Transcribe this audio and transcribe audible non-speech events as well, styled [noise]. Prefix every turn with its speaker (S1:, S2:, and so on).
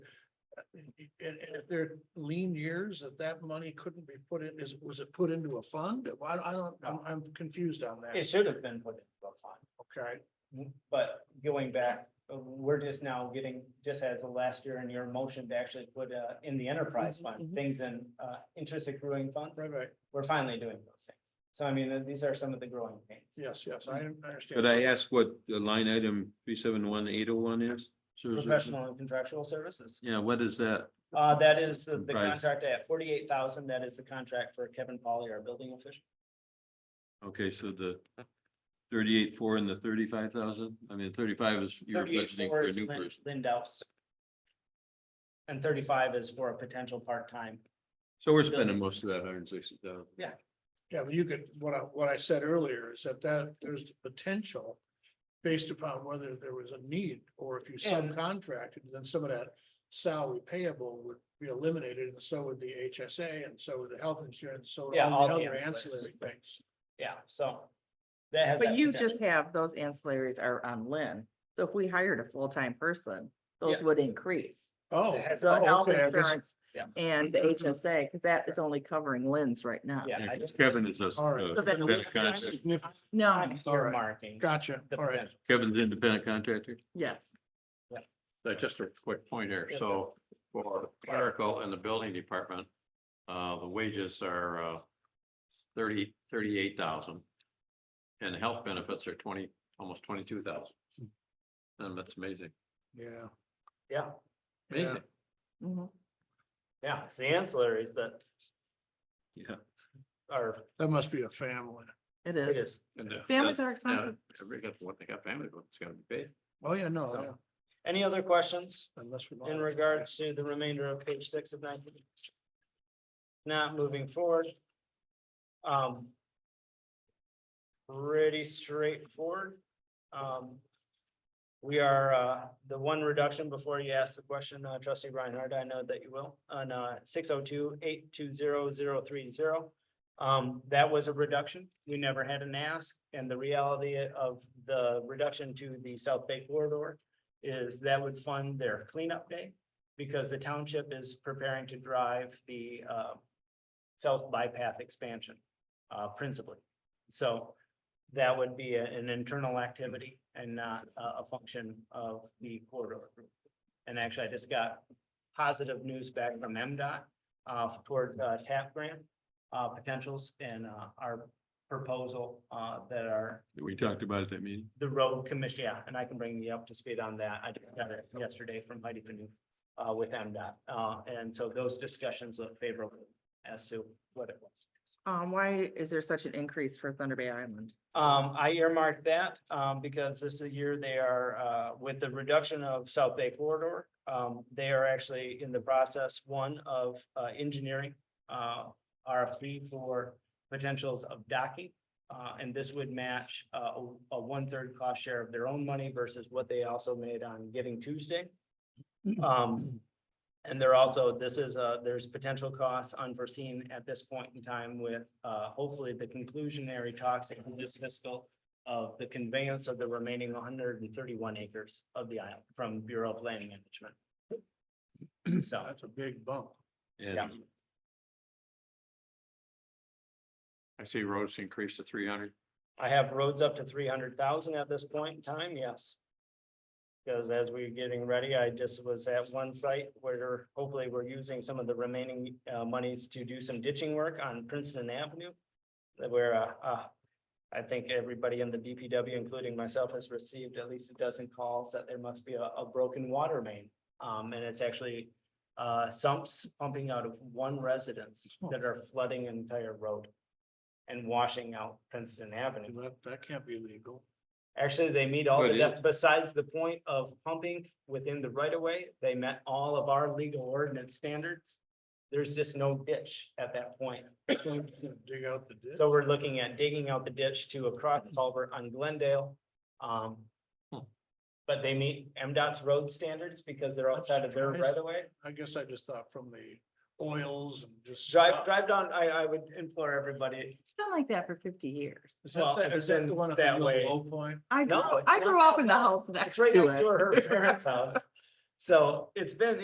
S1: and, and if they're lean years, that that money couldn't be put in, is, was it put into a fund? I, I don't, I'm, I'm confused on that.
S2: It should have been put into a fund.
S1: Okay,
S2: But going back, uh, we're just now getting, just as of last year in your motion to actually put uh, in the enterprise
S3: Mm-hmm,
S1: Mhm,
S2: fund,
S1: mhm.
S2: things in uh, interest accruing funds.
S1: right, right.
S2: We're finally doing those things. So I mean, uh, these are some of the growing pains.
S1: Yes, yes, I I understand.
S4: Could I ask what the line item three seven one eight oh one is? Sure, sure, sure.
S2: Professional and contractual services.
S4: Yeah, what is that?
S2: Uh, That is the the
S4: Comprise.
S2: contract at forty-eight thousand. That is the contract for Kevin Polly, our building official.
S4: Okay, so the thirty-eight four and the thirty-five thousand? I mean, thirty-five is you're
S2: Thirty-eight
S4: budgeting for
S2: four
S4: a
S2: is
S4: new
S2: Lin-
S4: person.
S2: Lindau's. And thirty-five is for a potential part-time.
S4: So we're spending most of that hundred and sixty thousand.
S1: Yeah, but you could, what I, what I said earlier is that that, there's the potential based upon whether there was a need, or if you
S2: And-
S1: subcontracted, then some of that salary payable would be eliminated, and so would the HSA, and so would the health insurance, so would
S2: Yeah,
S1: all the
S2: all the
S1: other
S2: ancillaries.
S1: ancillary things.
S2: Yeah, so. That has.
S3: But
S2: that
S3: you
S2: potential.
S3: just have, those ancillaries are on Lynn. So if we hired a full-time person, those
S2: Yeah.
S3: would increase.
S1: Oh,
S2: It has
S3: The
S2: Oh,
S3: health
S1: okay, I guess-
S3: insurance
S2: Yeah.
S3: and the HSA, because that is only covering Lynn's right now.
S2: Yeah, I just.
S4: Kevin is us,
S1: All right.
S4: uh,
S3: So then we-
S4: independent contractor.
S1: Significant-
S3: No,
S2: I'm
S1: all right.
S2: earmarking
S1: Gotcha,
S2: the
S1: all right.
S2: potential.
S4: Kevin's independent contractor.
S3: yes.
S4: Uh, Just a quick point here.
S2: Yeah.
S4: So for clerical and the building department, uh, the wages are, uh, thirty, thirty-eight thousand. And the health benefits are twenty, almost twenty-two thousand. And that's amazing,
S1: Yeah.
S2: Yeah,
S1: yeah.
S4: amazing.
S3: Mhm.
S2: yeah, it's the ancillaries that
S4: Yeah.
S2: are,
S1: That must be a family.
S3: It
S2: it
S3: is.
S2: is.
S4: And, uh,
S3: Families
S4: that-
S3: are
S4: yeah,
S3: expensive.
S4: Every got what they got family, but it's gotta be paid.
S1: Oh, yeah, no,
S2: So-
S1: yeah,
S2: Any other questions
S1: unless. we're
S2: in
S1: not-
S2: regards to the remainder of page six of nineteen? Now, moving forward. Um. Pretty straightforward. Um. We are, uh, the one reduction before you ask the question, uh, trustee Reinhardt, I know that you will, on, uh, six oh two eight two zero zero three zero. Um, that was a reduction. We never had an ask, and the reality of the reduction to the South Bay corridor is that would fund their cleanup day because the township is preparing to drive the uh South bypass expansion uh principally. So that would be a- an internal activity and not a a function of the corridor. group. And actually, I just got positive news back from MDOT uh towards uh TAP grant uh potentials and uh our proposal uh that are
S4: We talked about it at meeting.
S2: the road commission, yeah, and I can bring you up to speed on that. I just got it yesterday from Heidi Fanu uh, with MDOT. Uh, and so those discussions look favorable as to what it was.
S3: Um, why is there such an increase for Thunder Bay Island?
S2: Um, I earmarked that, um, because this is a year they are, uh, with the reduction of South Bay corridor. Um, they are actually in the process, one of, uh, engineering, uh, RFP for potentials of docking. Uh, and this would match, uh, a- a one-third cost share of their own money versus what they also made on Giving Tuesday. Um, and they're also, this is, uh, there's potential costs unforeseen at this point in time with, uh, hopefully the conclusionary talks in this fiscal of the conveyance of the remaining one hundred and thirty-one acres of the island from Bureau of Land Management. So,
S1: That's a big bump.
S2: Yeah.
S4: And I see roads increased to three hundred.
S2: I have roads up to three hundred thousand at this point in time, yes. Because as we're getting ready, I just was at one site where hopefully we're using some of the remaining uh monies to do some ditching work on Princeton Avenue. that Where uh, uh, I think everybody in the DPW, including myself, has received at least a dozen calls that there must be a a broken water main. Um, and it's actually uh sumps pumping out of one residence that are flooding an entire road. And washing out Princeton Avenue.
S1: That, that can't be
S2: [coughs]
S1: legal.
S2: Actually, they meet all, the
S4: But it-
S2: def- besides the point of pumping within the right of way, they met all of our legal ordinance standards. There's just no ditch at that point.
S1: Dig out the ditch.
S2: So we're looking at digging out the ditch to a cross culvert on Glendale. Um.
S4: Hmm.
S2: But they meet MDOT's road standards because they're outside of their
S1: surprised.
S2: right of way.
S1: I guess I just thought from the oils and just.
S2: Drive, drive down, I, I would implore everybody,
S3: It's been like that for fifty years.
S1: Is
S2: well,
S1: that, the-
S2: it's
S1: is that
S2: been
S1: the one at
S2: that
S1: the
S2: way.
S1: real low point?
S3: I
S2: No,
S3: grew,
S2: it's
S3: I
S2: not
S3: grew
S2: that
S3: up in the
S2: bad.
S3: house next
S2: it's
S3: to
S2: right next
S3: it.
S2: to her parents' house. So it's been